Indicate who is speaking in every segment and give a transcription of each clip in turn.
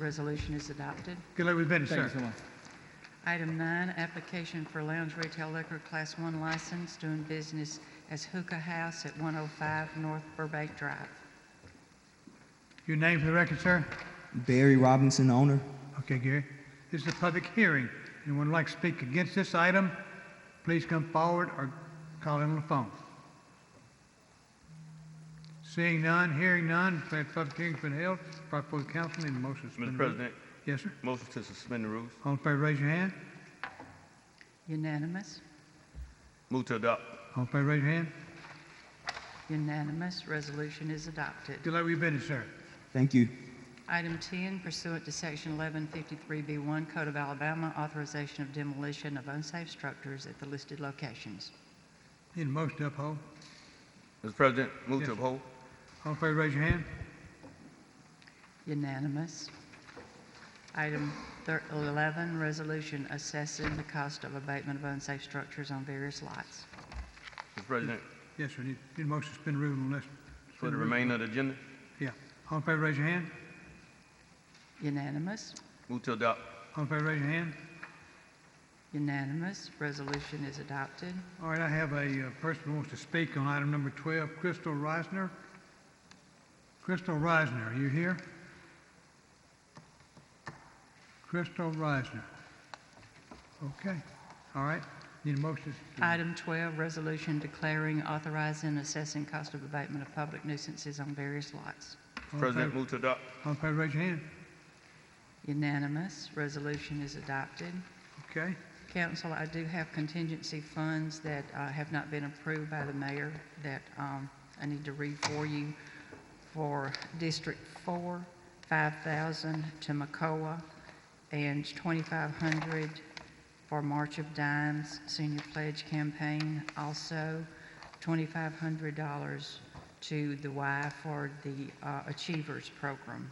Speaker 1: resolution is adopted.
Speaker 2: Good luck with business,
Speaker 3: Thank you
Speaker 2: sir.
Speaker 3: so much.
Speaker 1: Item nine, application for lounge retail liquor class one license doing business as Hookah House at 105 North Burbank Drive.
Speaker 2: Your name for the record, sir?
Speaker 4: Barry Robinson, owner.
Speaker 2: Okay, Gary. This is a public hearing. Anyone would like to speak against this item, please come forward or call in on the phone. Seeing none, hearing none, declare the public hearing's been held. Proper for the council, need a motion to
Speaker 3: Mm-hmm.
Speaker 2: suspend.
Speaker 5: Mr.
Speaker 2: the rules.
Speaker 5: President,
Speaker 2: Yes, sir.
Speaker 5: motion to suspend the rules.
Speaker 2: All in favor, raise your hand.
Speaker 1: Unanimous,
Speaker 5: Move to adopt.
Speaker 2: All in favor, raise your hand.
Speaker 1: unanimous, resolution is adopted.
Speaker 2: Good luck with your business, sir.
Speaker 4: Thank you.
Speaker 1: Item 10, pursuant to Section 1153B1 Code of Alabama, authorization of demolition of unsafe structures at the listed locations.
Speaker 2: Need a motion to uphold.
Speaker 5: Mr. President, move
Speaker 2: Yes,
Speaker 5: to
Speaker 2: sir.
Speaker 5: uphold.
Speaker 2: All in favor, raise your hand.
Speaker 1: Unanimous. Item thir- 11, resolution assessing the cost of abatement of unsafe structures on various lots.
Speaker 5: Mr. President,
Speaker 2: Yes, sir. Need need a motion to suspend the rules unless.
Speaker 5: for the
Speaker 3: Mm-hmm.
Speaker 2: suspend rules.
Speaker 5: remainder of the agenda,
Speaker 2: Yeah. All in favor, raise your hand.
Speaker 1: Unanimous,
Speaker 5: move to adopt.
Speaker 2: All in favor, raise your hand.
Speaker 1: unanimous, resolution is adopted.
Speaker 2: All right, I have a uh, person who wants to speak on item number 12, Crystal Reisner. Crystal Reisner, are you here? Crystal Reisner. Okay, all right. Need a motion? to-
Speaker 1: Item 12, resolution declaring, authorizing, assessing cost of abatement of public nuisances on various lots.
Speaker 2: all in
Speaker 5: Mr. President,
Speaker 2: favor-
Speaker 5: move to adopt.
Speaker 2: All in favor, raise your hand.
Speaker 1: Unanimous, resolution is adopted.
Speaker 2: Okay,
Speaker 1: Council, I do have contingency funds that uh, have not been approved by the mayor that um, I need to read for you. For District 4, 5,000 to Macoa, and 2,500 for March of Dimes Senior Pledge Campaign. Also, $2,500 to the Y for the uh, Achievers Program.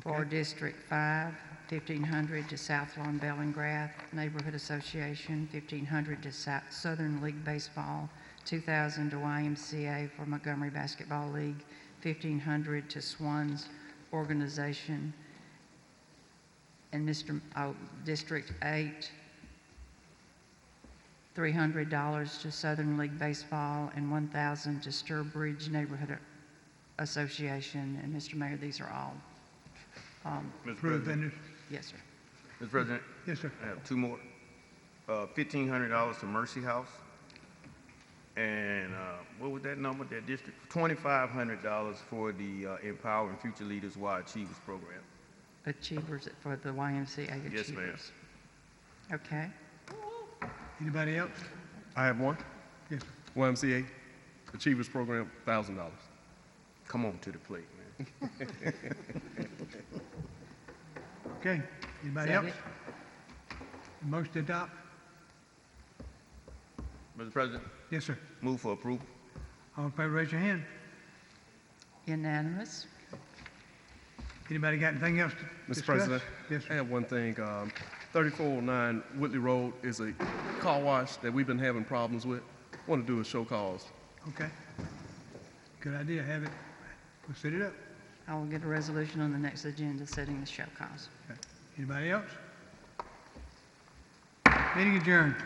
Speaker 1: For
Speaker 2: Okay.
Speaker 1: District 5, 1,500 to South Lawn Bellingrath Neighborhood Association, 1,500 to Sou- Southern League Baseball, 2,000 to YMCA for Montgomery Basketball League, 1,500 to Swans Organization, and Mr., oh, District 8, $300 to Southern League Baseball, and 1,000 to Sturbridge Neighborhood Association. And Mr. Mayor, these are all
Speaker 5: Mr.
Speaker 2: approved,
Speaker 5: President,
Speaker 2: and it's-
Speaker 1: Yes, sir.
Speaker 5: Mr. President,
Speaker 2: yes, sir.
Speaker 5: I have two more. Uh, fifteen hundred dollars to Mercy House. And, uh, what was that number, that district? Twenty-five hundred dollars for the uh, Empowering Future Leaders Y Achievers Program.
Speaker 1: Achievers for the YMCA Achievers.
Speaker 5: Yes, ma'am.
Speaker 1: Okay.
Speaker 2: Anybody else?
Speaker 6: I have one.
Speaker 2: Yes, sir.
Speaker 6: YMCA Achievers Program, thousand dollars.
Speaker 5: Come on to the plate, man.
Speaker 2: Okay, anybody
Speaker 1: Is that
Speaker 2: else? Motion to adopt?
Speaker 5: Mr. President,
Speaker 2: Yes, sir.
Speaker 5: move for approval.
Speaker 2: All in favor, raise your hand.
Speaker 1: Unanimous.
Speaker 2: Anybody got anything else to
Speaker 6: Mr.
Speaker 2: discuss?
Speaker 6: President,
Speaker 2: Yes,
Speaker 6: I
Speaker 2: sir.
Speaker 6: have one thing. Um, 3409 Whitley Road is a car wash that we've been having problems with. Want to do a show cause.
Speaker 2: Okay. Good idea, have it, we'll set it up.
Speaker 1: I will get a resolution on the next agenda setting the show cause.
Speaker 2: Okay. Anybody else? Meeting adjourned.